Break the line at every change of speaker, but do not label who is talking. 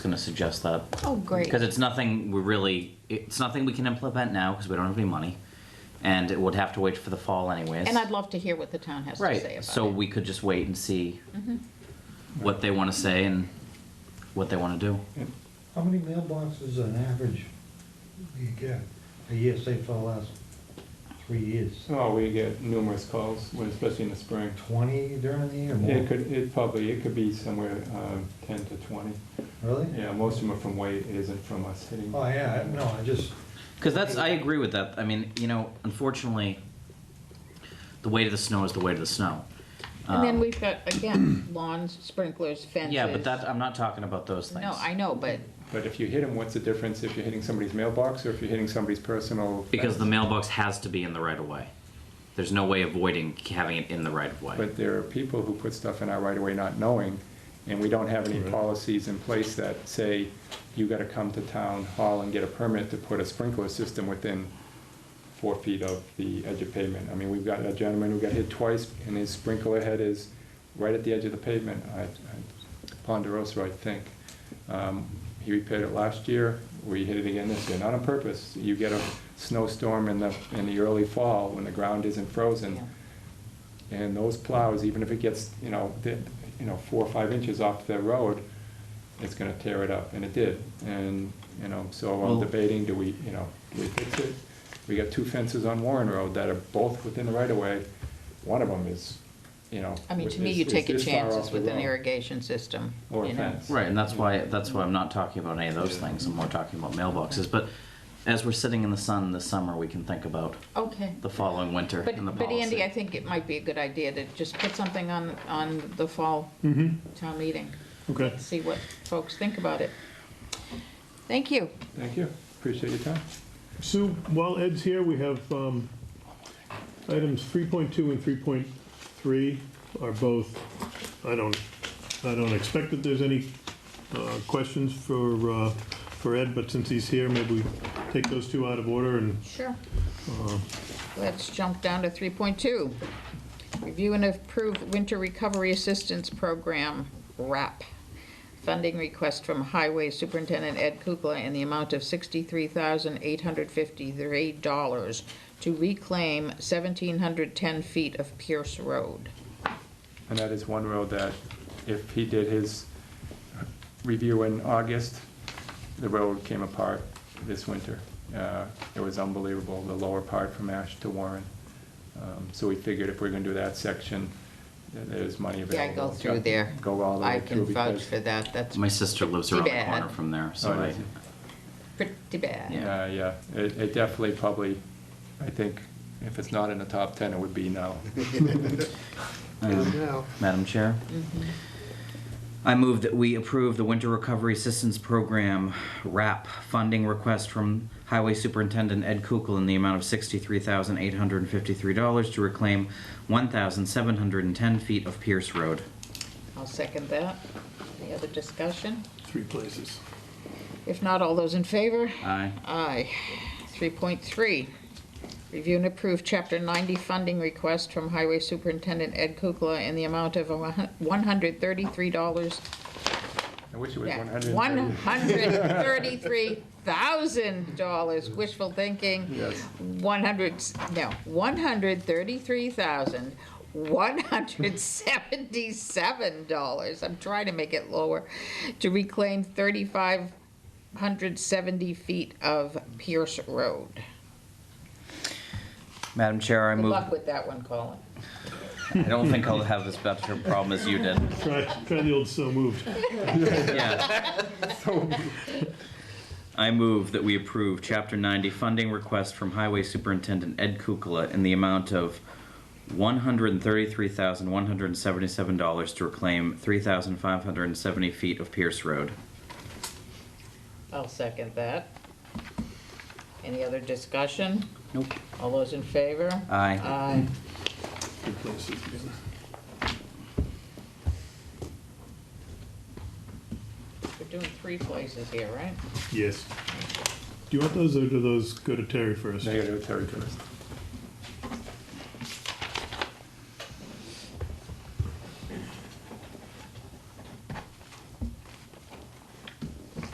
going to suggest that
Oh, great.
because it's nothing we really it's nothing we can implement now because we don't have any money, and it would have to wait for the fall anyways.
And I'd love to hear what the town has to say
right.
about
So
it. Mm-hmm.
we could just wait and see what they want to say and what they want to do.
How many mailboxes on average do you get a year, say for the last three years?
Oh, we get numerous calls, when- especially in the spring.
Twenty during the year,
It
more,
could, it probably, it could be somewhere um, 10 to 20.
really?
Yeah, most of them are from Wade, it isn't from us hitting.
Oh, yeah, I- no, I just,
Because that's, I agree with that. I mean, you know, unfortunately, the weight of the snow is the weight of the snow.
And then
Um,
we've got, again, lawns, sprinklers, fences.
Yeah, but that, I'm not talking about those things.
No, I know, but
But if you hit them, what's the difference if you're hitting somebody's mailbox or if you're hitting somebody's personal?
Because the
fence?
mailbox has to be in the right of way. There's no way avoiding having it in the right of way.
But there are people who put stuff in our right away not knowing, and we don't have any policies in place that say, you gotta come to town hall and get a permit to put a sprinkler system within four feet of the edge of pavement. I mean, we've got a gentleman who got hit twice, and his sprinkler head is right at the edge of the pavement, I- I- Ponderosa, I think. Um, He repaired it last year, we hit it again this year, not on purpose. You get a snowstorm in the, in the early fall, when the ground isn't frozen,
Yeah.
and those plows, even if it gets, you know, di- you know, four or five inches off the road, it's gonna tear it up, and it did. And, you know, so
Well-
I'm debating, do we, you know, do we fix it? We got two fences on Warren Road that are both within the right of way. One of them is, you know.
I mean, to me,
is-
you
is
take a
this far
chance
off
it's
the
with an
road
irrigation system,
Or
you
a
know.
fence.
Right, and that's why, that's why I'm not talking about any of those things. I'm more talking about mailboxes. But as we're sitting in the sun this summer, we can think about
Okay.
the following winter
But,
and the
but Andy, I
policy.
think it might be a good idea to just put something on, on the fall
Mm-hmm.
town meeting.
Okay.
See what folks think about it. Thank you.
Thank you, appreciate your time.
Sue, while Ed's here, we have um, items 3.2 and 3.3 are both, I don't, I don't expect that there's any uh, questions for, uh, for Ed, but since he's here, maybe we take those two out of order and
Sure. Let's jump down to 3.2. Review and approve Winter Recovery Assistance Program, RAP. Funding request from Highway Superintendent Ed Kukla in the amount of $63,853 to reclaim 1,710 feet of Pierce Road.
And that is one road that if he did his review in August, the road came apart this winter. Uh, It was unbelievable, the lower part from Ash to Warren. Um, So we figured if we're gonna do that section, th- there's money
Yeah,
available.
I go through there.
Go all the
I
way through.
can vouch
because,
for that. That's
My sister lives
Too
around the
bad.
corner from there, so
Oh,
I,
is it?
pretty bad.
Yeah.
uh, Yeah, it it definitely probably, I think, if it's not in the top ten, it would be now.
um, Madam Chair. I move that we approve the Winter Recovery Assistance Program RAP funding request from Highway Superintendent Ed Kukel in the amount of sixty-three thousand eight hundred and fifty-three dollars to reclaim one thousand seven hundred and ten feet of Pierce Road.
I'll second that. Any other discussion?
three places.
If not, all those in favor?
Aye.
Aye. 3.3, review and approve Chapter 90 funding request from Highway Superintendent Ed Kukla in the amount of $133,
I wish it was
yeah,
one hundred and thirty.
$133,000, wishful thinking.
Yes.
100, no, 133,177 dollars, I'm trying to make it lower, to reclaim 3,570 feet of Pierce Road.
Madam Chair, I
Good
move,
luck with that one, Colin.
I don't think I'll have this much of a problem as you did.
Try, try the old so moved.
Yeah. I move that we approve Chapter 90 funding request from Highway Superintendent Ed Kukla in the amount of $133,177 to reclaim 3,570 feet of Pierce Road.
I'll second that. Any other discussion?
Nope.
All those in favor?
Aye.
Aye.
Three places, yeah.
We're doing three places here, right?
Yes. Do you want those, or do those go to Terry first?
Negative territories.